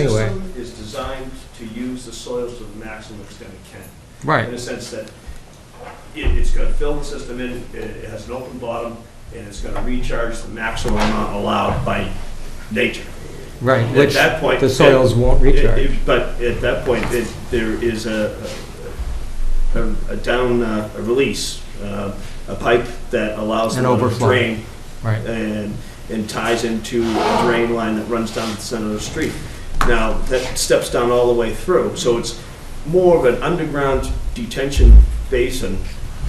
Anyway. system is designed to use the soils to the maximum extent it can, in Right, a sense that it, it's gonna fill the system in, it, it has an open bottom, and it's gonna recharge the maximum amount allowed by nature. right, At which that point, the soils won't It- recharge. it- But at that point, it, there is a, a, a down, uh, a release, uh, a pipe that allows An them to overflow. drain Right, and, and ties into a drain line that runs down the center of the street. Now, that steps down all the way through, so it's more of an underground detention basin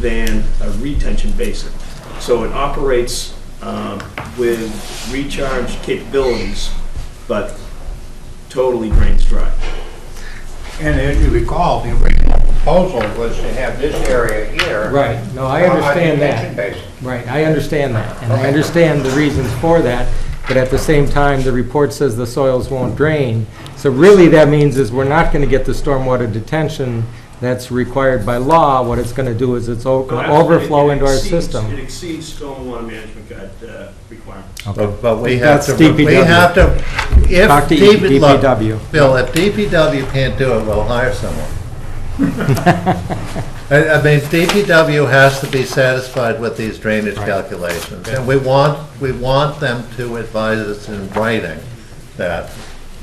than a retention basin. So it operates um, with recharge capabilities, but totally drains dry. And as you recall, the original proposal was to have this area here. right. No, I on a understand detention that. basin. Right, I understand that. And I Okay. understand the reasons for that, but at the same time, the report says the soils won't drain. So really, that means is we're not going to get the stormwater detention that's required by law. What it's going to do is it's o- But gonna overflow it into our exceeds- It system. exceeds stormwater management guide uh, requirements. Okay. But but we have That's to, we DPW. have to, if Talk to E- DPW, look, DPW. Bill, if DPW can't do it, we'll hire someone. I, I mean, DPW has to be satisfied with these drainage calculations, and we want, we want them to advise us in writing that,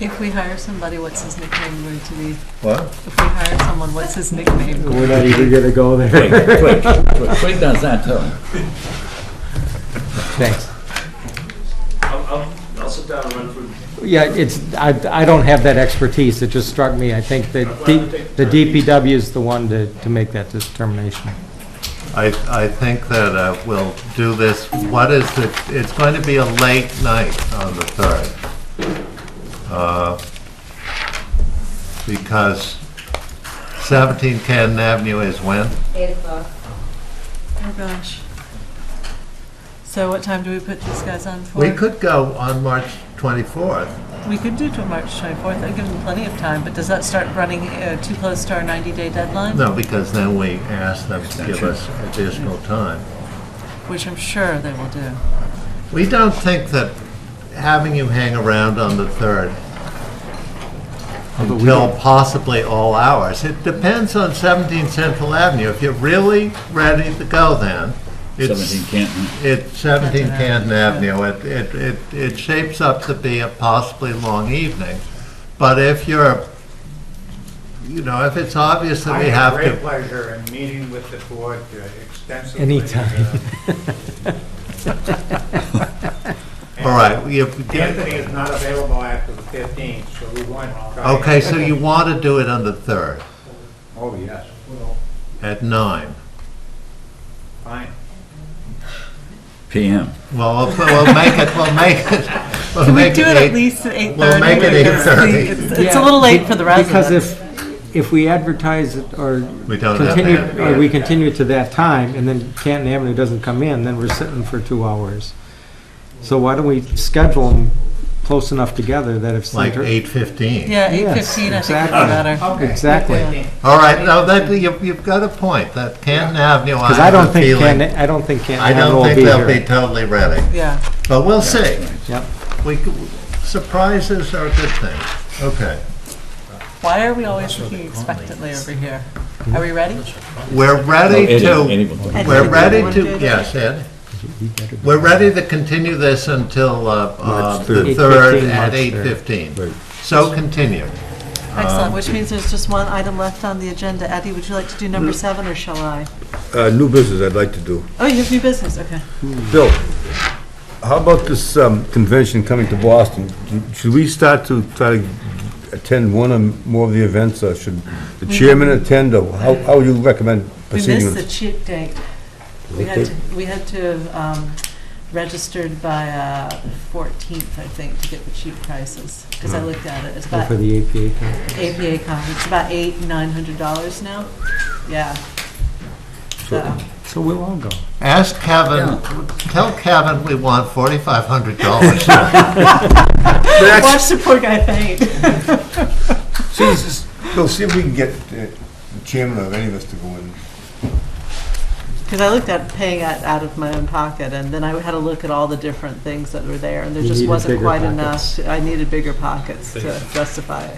If we hire somebody, what's his nickname going to be? what? If we hire someone, what's his nickname? Oh, We're not even going to go there. Twig, Twig, Twig. Twig does that too. Thanks. I'll, I'll, I'll sit down and run through Yeah, it's, I, I don't have that expertise, it just struck me, I think that D- the DPW is the one to, to make that determination. I, I think that uh, we'll do this, what is it, it's going to be a late night on the 3rd. Uh, Because 17 Canton Avenue is when? Eight o'clock. Oh, gosh. So what time do we put these guys on for? We could go on March 24th. We could do till March 24th. I give them plenty of time, but does that start running uh, too close to our 90-day deadline? No, because then we ask them to give us additional time. Which I'm sure they will do. We don't think that having you hang around on the 3rd until possibly all hours, it depends on 17 Central Avenue. If you're really ready to go then, Seventeen it's, Canton. it's 17 Canton Canton Avenue. It, it, it it shapes up to be a possibly long evening. But if you're, you know, if it's obvious that I we had have great to, pleasure in meeting with the board uh, extensively. Uh, Anytime. all right, Uh, you Anthony is not available after the 15th, so we want to try. Okay, so you want to do it on the 3rd Oh, yes, at nine. fine. PM. Well, we'll we'll make it, we'll make it. we'll Can we make do it at eight- least at 8:30? We'll make it Because 8:30. it's- It's a little late for the Because residents. if, if we advertise it or We don't have continue, that. or we continue to that time, and then Canton Avenue doesn't come in, then we're sitting for two hours. So why don't we schedule them close enough together that if. Like Center- 8:15. Yeah, Yes, 8:15, I think would be exactly. better. Exactly, All right, no, that, you- you've got a point, that Canton Avenue, I because I have don't a think feeling, Canton, I don't think Canton I Avenue don't will think be they'll be here. totally ready, Yeah. but we'll see. Yep. We, c- surprises are a good thing. Okay, Why are we always looking expectantly over here? Are we ready? we're ready Anyone- to, anyone can- we're ready to, Anyone do yes, Ed? We're ready to continue this until uh, uh, the 3rd 8:15, at March 3rd. 8:15. So continue. Um, Excellent, which means there's just one item left on the agenda. Eddie, would you like to do number Mm. seven, or shall I? Uh, New business I'd like to do. Oh, you have new business, okay. Bill, how about this um, convention coming to Boston? Should we start to try to attend one or more of the events, or should the chairman attend, or how how would you recommend We proceeding? missed with the this? cheap date. We had, to- we had to have um, registered by uh, 14th, I think, to get the cheap prices, because I looked at it. It's about Mm. For the APA thing. APA con, it's about eight, $900 now. Yeah. So, So we'll all go. Ask Kevin, tell Kevin we want $4,500. watch the poor guy faint. Jesus, Bill, see if we can get uh, the chairman of any of us to go in. Because I looked at paying it out of my own pocket, and then I had a look at all the different things that were there, and there You just needed wasn't bigger quite enough. pockets. I needed bigger pockets to justify it.